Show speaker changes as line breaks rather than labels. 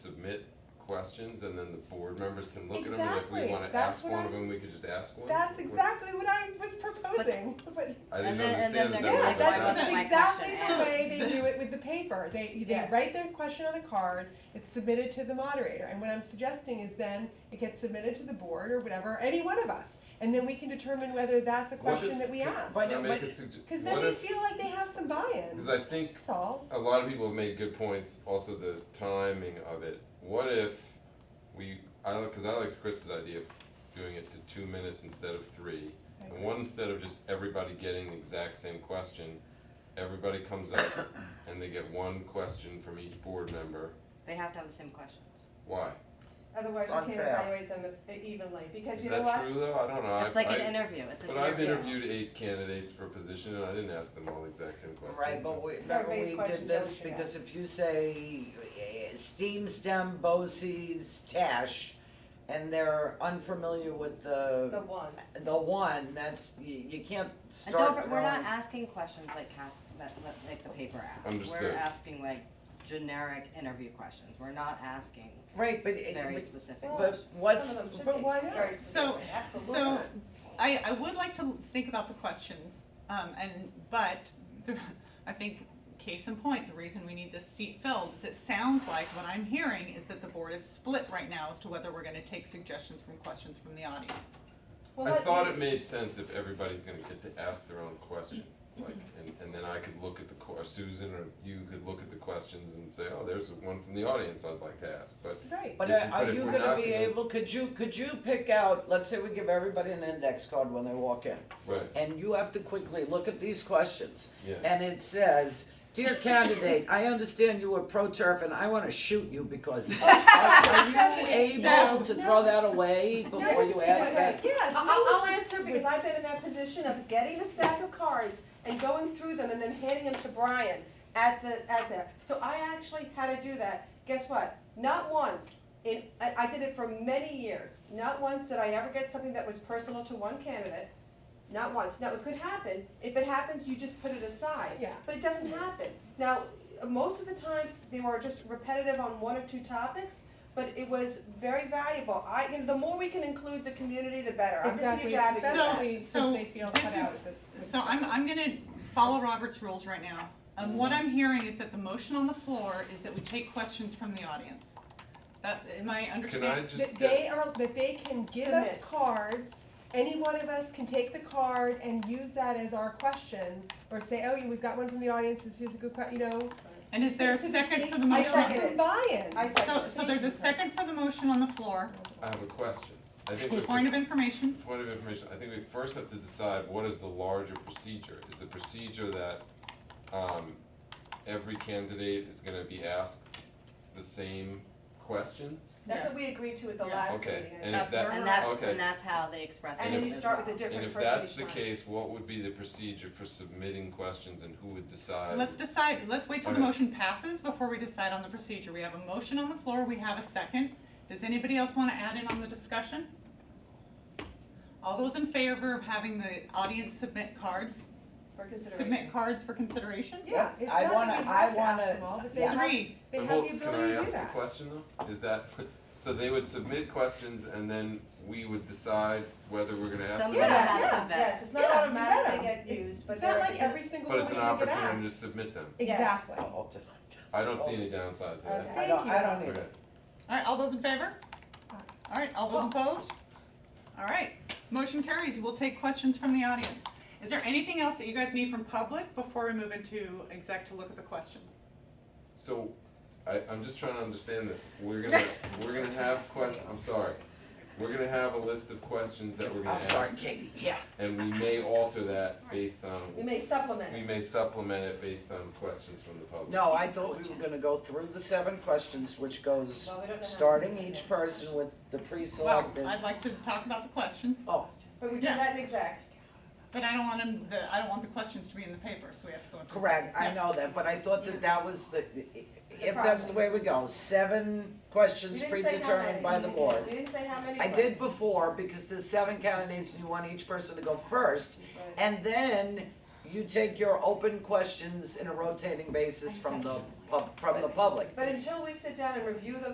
submit questions and then the board members can look at them and if we
Exactly.
wanna
That's
ask
what
one of
I-
them, we could just ask one?
That's
What-
exactly what I was proposing, but,
I
And
didn't
then- and then
understand that.
they're
that
yeah,
like,
was
why
not-
wasn't
that's
my
exactly
question
the
asked?
way they do it with the paper. They, they
Yes.
write their question on a card, it's submitted to the moderator, and what I'm suggesting is then it gets submitted to the board or whatever, any one of us, and then we can determine whether that's a
What
question
if-
that we
can-
ask.
But-
can I make
but-
a sugge-
Cause then
what
they
if-
feel like they have some buy-in,
Because I think
that's all.
a lot of people have made good points, also the timing of it. What if we, I like, because I liked Chris's idea of doing it to two minutes instead of three. And one, instead of just everybody getting the exact same question, everybody comes up and they get one question from each board member.
They have to have the same questions.
Why?
Otherwise
you can't Unfair. evaluate
them evenly, because
Is that true though? I don't know.
It's like
I-
an
I-
interview, it's an
But I've
interview.
interviewed eight candidates for a position and I didn't ask them all the exact same question.
Right, but we, remember
Everybody's
we
questions
did
are
this,
what you
because if you say eh, steam stem, BOCES, Tash, and they're unfamiliar with the,
one.
the one, that's, you, you can't
And don't,
start
for- we're not
throwing-
asking questions like half, that, that- like the paper asks.
Understood.
We're asking like generic interview questions, we're not asking
Right, but, it-
very specific
Well,
but
questions.
what's,
Some of them should
but
be
why
very
not?
specific,
So-
absolutely.
So, I, I would like to think about the questions, um, and, but, the- I think, case in point, the reason we need this seat filled is it sounds like what I'm hearing is that the board is split right now as to whether we're gonna take suggestions from questions from the audience.
Well,
I
let-
thought it made sense if everybody's gonna get to ask their own question, like, and, and then I could look at the, que- or Susan or you could look at the questions and say, oh, there's one from the audience I'd like to ask, but
Right.
But
If-
are are
but if
you
we're
gonna
not
be
gonna-
able, could you, could you pick out, let's say we give everybody an index card when they walk in,
Right,
and you have to quickly look at these questions,
yeah.
and it says, "Dear candidate, I understand you were pro turf, and I want to shoot you because." are, are you able to throw that away before you ask that?
Yes.
I'll,
no,
I'll I'll
it's-
answer because I've been in that position of getting the stack of cards and going through them and then handing them to Brian at the, at there. So I actually had to do that. Guess what? Not once, in, I, I did it for many years. Not once did I ever get something that was personal to one candidate. Not once. Now, it could happen. If it happens, you just put it aside.
Yeah.
But it doesn't happen. Now, most of the time, they were just repetitive on one or two topics, but it was very valuable. I, you know, the more we can include the community, the better. I'm just a
Exactly,
huge advocate.
So-
especially
so
since they feel
this
cut
is-
out at this. this
So I'm,
time.
I'm gonna follow Robert's rules right now. And what I'm hearing is that the motion on the floor is that we take questions from the audience. That, am I
Can
understanding?
I just
That
get,
they are, that they can give us
Submit.
cards, any one of us can take the card and use that as our question, or say, oh, yeah, we've got one from the audience, this is a good question, you know.
And is there a
So that
second
they-
for the
I
motion? on-
second
second
it.
it.
buy-in.
I second
So,
it.
so there's a second for the motion on the floor.
I have a question. I think we,
Point of
point
information,
of information, I think we first have to decide what is the larger procedure? Is the procedure that, um, every candidate is gonna be asked the same questions?
That's what we agreed to at the
Yeah.
last meeting.
Okay, and if
That's
that,
where
And that's,
Okay.
and that's how they express it
And then you
as
start
well.
with a
And
different
if
person each time.
that's the case, what would be the procedure for submitting questions and who would decide?
let's decide, let's wait till the
Uh, Okay.
motion passes before we decide on the procedure. We have a motion on the floor, we have a second. Does anybody else wanna add in on the discussion? All those in favor of having the audience submit cards,
For consideration.
submit cards for consideration?
Yeah, it's
I
not
wanna-
that we
I
have to
wanna-
ask them all, but they
yes.
have,
Agreed.
they
But
have
hold-
the ability to do
Can I ask a
that.
question though? Is that, so they would submit questions and then we would decide whether we're gonna ask them? or
Somebody
not?
Yeah,
has
yeah,
to
Yes,
vet.
it's
Yeah,
not
you
automatic they
better.
get used, but
It's not
they're.
like every single
But
one we
it's
could
an
ask.
opportunity to submit them.
Exactly.
I don't see any downside to that.
I don't, I don't
Okay.
either.
All right, all those in favor?
Aye.
All right, all those opposed? All right, motion carries. We'll take questions from the audience. Is there anything else that you guys need from public before we move into exec to look at the questions?
So, I, I'm just trying to understand this. We're gonna, we're gonna have questions. I'm sorry. We're gonna have a list of questions that we're gonna
I'm sorry,
ask.
Katie, yeah.
And we may alter that based on,
You may supplement
we
it.
may supplement it based on questions from the public.
No, I thought we were gonna go through the seven questions, which goes,
Well, we don't know how
starting
many it
each
is.
person with the
Well,
pre-selected.
I'd like to talk about the questions,
Oh,
But we do
Yeah.
that in exec.
but I don't want them, the, I don't want the questions to be in the paper, so we have to go into.
correct, I
Yeah.
know that, but I thought that that was the, if that's the
process.
way we go, seven
You
questions
didn't say how many.
predetermined by the board.
You didn't say how many.
I
questions.
did before, because there's seven candidates and you want each person to go first. And then you take your open questions in a rotating basis from the pub, from the public.
But until we sit down and review the